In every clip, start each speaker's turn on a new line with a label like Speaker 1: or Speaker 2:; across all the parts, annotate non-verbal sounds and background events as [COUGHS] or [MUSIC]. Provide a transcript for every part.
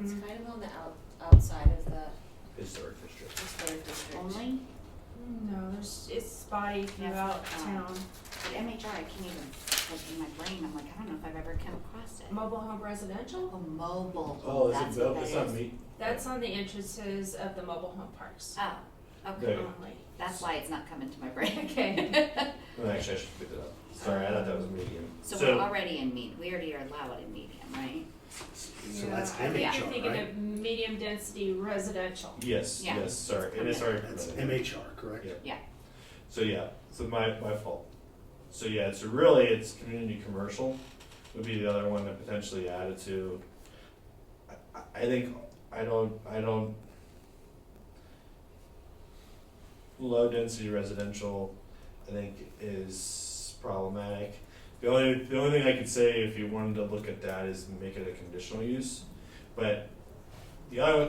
Speaker 1: It's
Speaker 2: Mhm.
Speaker 1: kind of on the out, outside of the
Speaker 3: historic district.
Speaker 1: historic district.
Speaker 4: only,
Speaker 2: No, there's, it's spotty throughout
Speaker 4: That's, um,
Speaker 2: town.
Speaker 4: the MHR, I can't even, like, in my brain, I'm like, I don't know if I've ever come across it.
Speaker 2: Mobile home residential?
Speaker 4: Oh, mobile,
Speaker 3: Oh,
Speaker 4: home,
Speaker 3: is
Speaker 4: that's
Speaker 3: it,
Speaker 4: what
Speaker 3: built-
Speaker 4: that is.
Speaker 3: it's not me,
Speaker 2: That's on the entrances of the mobile home parks
Speaker 4: Oh, okay,
Speaker 3: There.
Speaker 2: only.
Speaker 4: that's why it's not coming to my brain. [LAUGHS]
Speaker 2: Okay.
Speaker 3: no, actually, I should pick it up, sorry, I thought that was medium.
Speaker 4: So we're already in medium, we already are allowed in medium, right?
Speaker 5: So that's
Speaker 2: Yeah, I think
Speaker 4: MHR,
Speaker 2: you're thinking of medium density residential.
Speaker 3: Yes,
Speaker 4: Yeah.
Speaker 3: yes, sorry, and it's
Speaker 4: Okay.
Speaker 3: already.
Speaker 5: That's MHR, correct?
Speaker 3: Yeah.
Speaker 4: Yeah,
Speaker 3: So yeah, so my, my fault. So yeah, so really it's community commercial would be the other one to potentially add it to. I, I- I think, I don't, I don't. Low density residential, I think is problematic. The only, the only thing I could say if you wanted to look at that is make it a conditional use, but the other,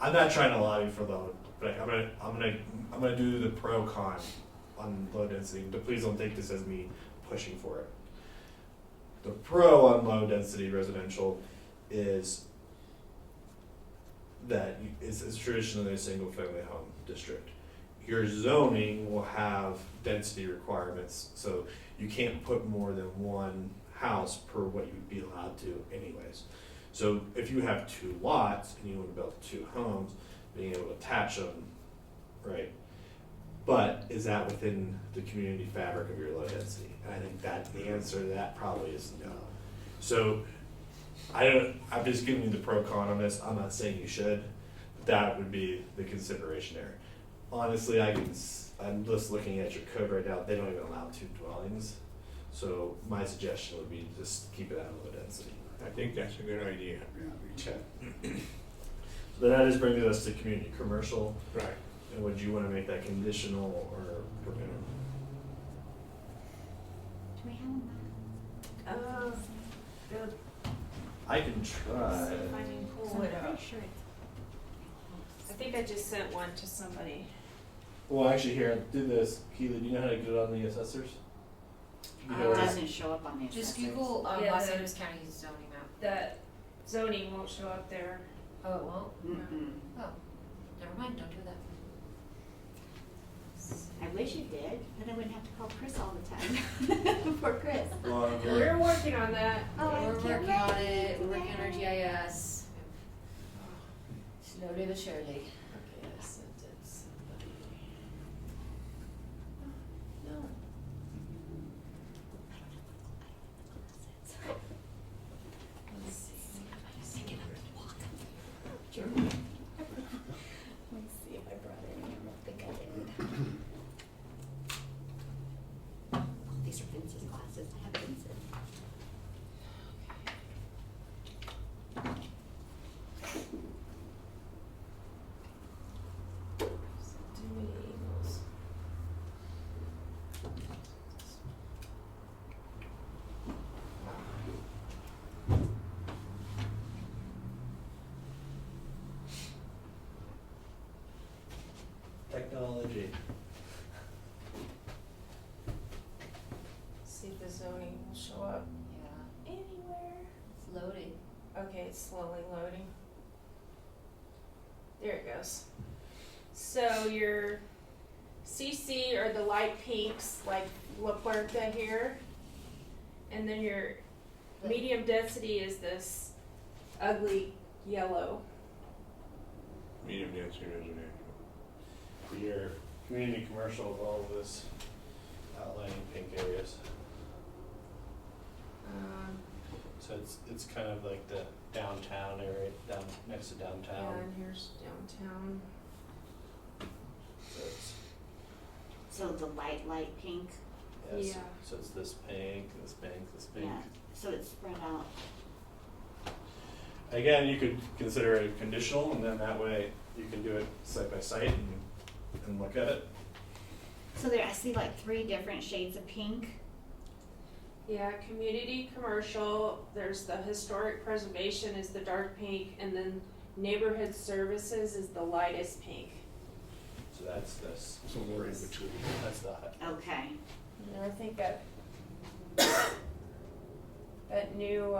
Speaker 3: I'm not trying to lobby for low, but I'm gonna, I'm gonna, I'm gonna do the pro con on low density. But please don't take this as me pushing for it. The pro on low density residential is that you- it's, it's traditionally a single family home district. Your zoning will have density requirements, so you can't put more than one house per what you'd be allowed to, anyways. So if you have two lots and you want to build two homes, being able to attach them, right? But is that within the community fabric of your low density? And I think that the answer to that probably is no.
Speaker 5: Um,
Speaker 3: So I don't, I'm just giving you the pro con on this. I'm not saying you should. But that would be the consideration there. Honestly, I can, s- I'm just looking at your code right now. They don't even allow two dwellings. So my suggestion would be just keep it out of low density.
Speaker 6: I think that's a good idea.
Speaker 3: Okay. So that is bringing us to community commercial,
Speaker 6: Right.
Speaker 3: and would you wanna make that conditional or permitted?
Speaker 4: do we have them?
Speaker 2: Uh, the
Speaker 3: I can
Speaker 5: Uh,
Speaker 3: try.
Speaker 2: finding pool
Speaker 4: I'm
Speaker 2: widow.
Speaker 4: pretty sure
Speaker 2: I
Speaker 4: it's.
Speaker 2: think I just sent one to somebody.
Speaker 3: Well, actually, here, do this, Keely, do you know how to get it on the assessors? You know
Speaker 4: It
Speaker 3: where it is?
Speaker 4: doesn't show up on the assessors.
Speaker 1: Just Google, um,
Speaker 2: Yeah,
Speaker 1: Los
Speaker 2: the-
Speaker 1: Angeles County zoning map.
Speaker 2: That zoning won't show up there.
Speaker 1: Oh, it won't?
Speaker 4: Mm-mm,
Speaker 1: Oh, never mind, don't do that.
Speaker 4: I wish it did, then I wouldn't have to call Chris all the time, [LAUGHS] poor Chris.
Speaker 3: Well, I'm here.
Speaker 2: We're working on that.
Speaker 4: Oh, I
Speaker 1: We're
Speaker 4: can't
Speaker 1: working on
Speaker 4: wait.
Speaker 1: it, we're working on our
Speaker 4: Yay.
Speaker 1: GIS. Slowly but surely. Okay, I sent it to somebody. No. Let's see.
Speaker 4: Let's see if I brought it in, I don't think I did. Oh, these are Vince's glasses, I have Vince's.
Speaker 1: Too many emails.
Speaker 3: Technology.
Speaker 2: See if the zoning will show up
Speaker 1: Yeah,
Speaker 2: anywhere.
Speaker 1: it's loading.
Speaker 2: Okay, it's slowly loading. There it goes. So your CC are the light pinks, like La Puerta here. And then your medium density is this ugly yellow.
Speaker 6: Medium density residential.
Speaker 3: Your community commercial is all of this outlining pink areas.
Speaker 2: Um,
Speaker 3: So it's, it's kind of like the downtown area, down, next to
Speaker 2: yeah,
Speaker 3: downtown.
Speaker 2: and here's downtown.
Speaker 3: So it's,
Speaker 4: So the light, light pink,
Speaker 3: yes.
Speaker 2: Yeah.
Speaker 3: So it's this pink, this pink, this pink.
Speaker 4: yeah, so it's spread out.
Speaker 3: Again, you could consider it conditional, and then that way you can do it site by site and, and look at it.
Speaker 4: So there, I see like three different shades of pink.
Speaker 2: Yeah, community commercial, there's the historic preservation is the dark pink, and then neighborhood services is the lightest pink.
Speaker 3: So that's this,
Speaker 5: So we're in between.
Speaker 3: that's the hut.
Speaker 4: Okay.
Speaker 2: And I think [COUGHS] that that new